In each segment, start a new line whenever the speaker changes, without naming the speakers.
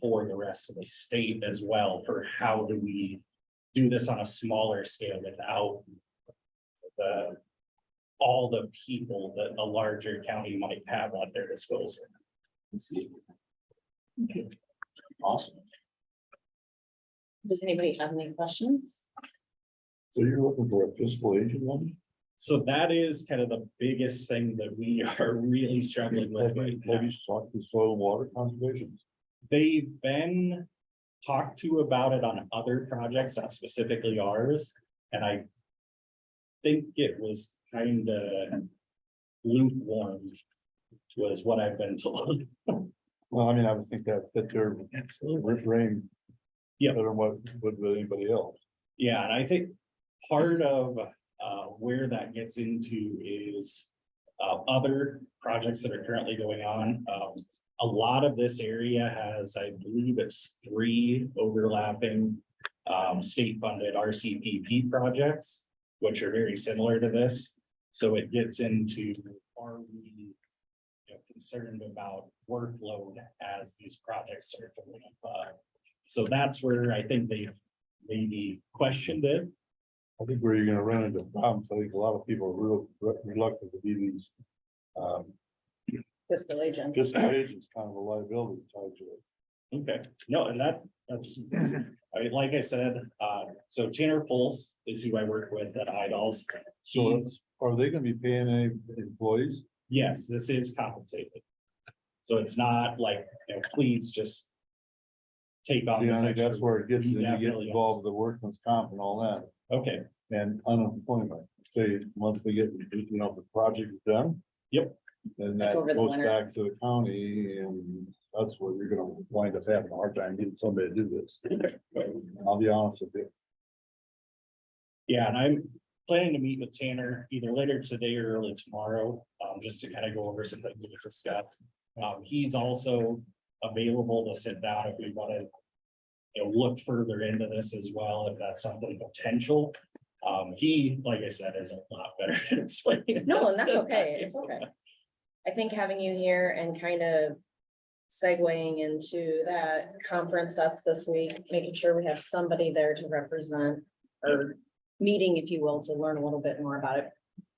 for the rest of the state as well for how do we do this on a smaller scale without the all the people that a larger county might have at their disposal.
Okay.
Awesome.
Does anybody have any questions?
So you're looking for a fiscal agent one?
So that is kind of the biggest thing that we are really struggling with
Have
right
you
now.
have you talked to soil and water conservation?
They've been talked to about it on other projects, not specifically ours, and I. Think it was kind of lukewarm. Was what I've been told.
Well, I mean, I would think that that they're refrain.
Yeah.
Better than what would with anybody else.
Yeah, and I think part of uh where that gets into is. Uh, other projects that are currently going on, um, a lot of this area has, I believe it's three overlapping. Um, state funded RCPP projects, which are very similar to this, so it gets into are we. you know, Concerned about workload as these projects are going up. So that's where I think they maybe questioned it.
I think where you're gonna run into problems, I think a lot of people are real re- reluctant to be these. Um,
Fiscal agent.
just agents kind of a liability tied to it.
Okay, no, and that, that's, I mean, like I said, uh, so Tanner Pulse is who I work with at Idols.
So
He's-
are they gonna be paying any employees?
yes, this is compensated. So it's not like, you know, please just take on
See, I
this
think that's
extra.
where it gets,
You
you get
Mm, definitely-
involved with the workman's comp and all that.
Okay,
and unemployment. Say, once we get, you know, the project is done.
Yep.
Then
Like
that
over the
goes
winter.
back to the county and that's where you're gonna wind up having a hard time getting somebody to do this. I'll be honest with you.
yeah, and I'm planning to meet with Tanner either later today or early tomorrow, um, just to kind of go over some things we discussed. Um, he's also available to sit down if we want to. You know, look further into this as well, if that's something potential. Um, he, like I said, is a lot better at explaining. this
No, and that's
than
okay,
I
it's
am.
okay. I think having you here and kind of segueing into that conference that's this week, making sure we have somebody there to represent or meeting, if you will, to learn a little bit more about it.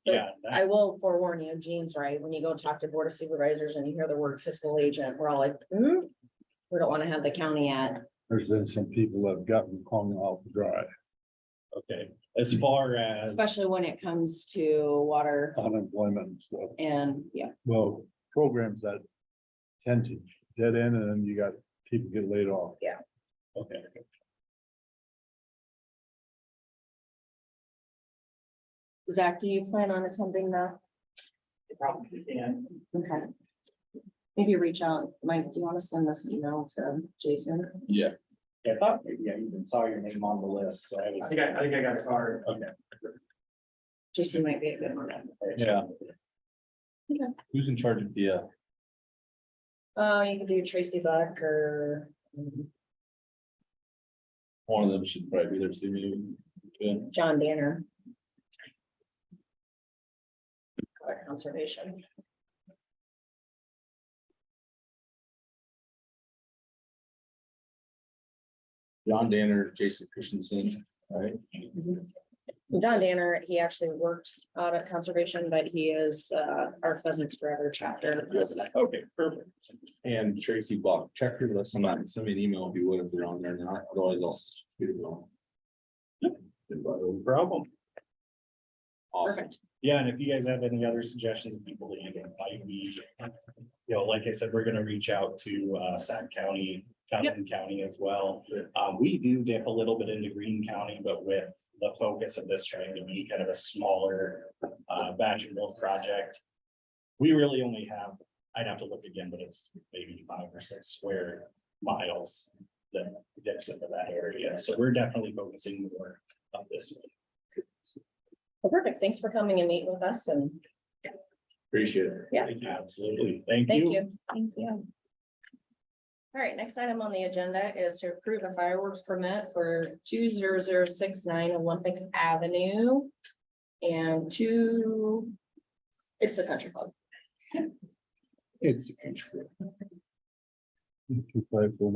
Yeah, that-
I will forewarn you, Jean's right, when you go talk to board of supervisors and you hear the word fiscal agent, we're all like, hmm? We don't want to have the county at,
There's been some people that have gotten hung out to dry.
okay, as far as,
especially when it comes to water
Unemployment and stuff.
and, yeah.
Well, programs that tend to dead end and then you got people get laid off.
okay,
Zach, do you plan on attending the?
Probably can.
Okay. Maybe reach out, Mike, do you want to send this email to Jason?
I thought, maybe I even saw your name on the list, so I was. I think I, I think I got started. Okay.
Jason might be a good one.
Yeah.
Okay.
Who's in charge of the, uh,
Oh, you could do Tracy Buck or, um,
one of them should probably be there, see me.
John Danner. Or conservation.
John Danner, Jason Christensen, right?
Mm-hmm. John Danner, he actually works out at conservation, but he is, uh, our Pheasants Forever chapter president.
Okay, perfect.
And Tracy Block, check her list, I'm not, send me an email if you would, if they're on there or not, otherwise I'll. s- shoot it on.
No Problem.
Awesome.
Perfect.
Yeah, and if you guys have any other suggestions of people that you can invite me, you know, like I said, we're gonna reach out to uh Sac County, Fountain County as well.
Sure.
Um, we do dip a little bit into Green County, but with the focus of this trying to be kind of a smaller uh batch and build project. We really only have, I'd have to look again, but it's maybe five or six square miles that dips into that area. So we're definitely focusing more on this one.
Well, Perfect. Thanks for coming and meeting with us and
Appreciate it.
Yeah.
Absolutely. Thank
Thank
you.
you. Thank you. All right, next item on the agenda is to approve a fireworks permit for two zero zero six nine Olympic Avenue. And two, it's the country club.
It's a control.
Two five four